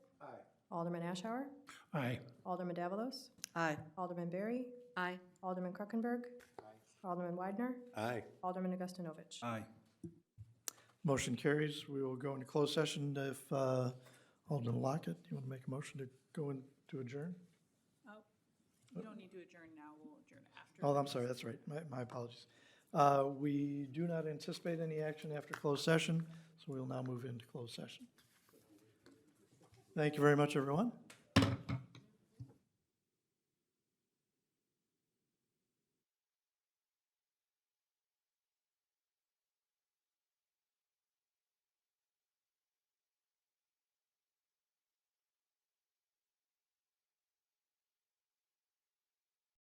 Alderman Ashower? Aye. Alderman Davalos? Aye. Alderman Berry? Aye. Alderman Krokenberg? Alderman Widener? Aye. Alderman Augustinovich? Aye. Motion carries. We will go into closed session if, uh, Alderman Lockett, you want to make a motion to go in to adjourn? You don't need to adjourn now, we'll adjourn after. Oh, I'm sorry, that's right. My, my apologies. Uh, We do not anticipate any action after closed session, so we will now move into closed session. Thank you very much, everyone.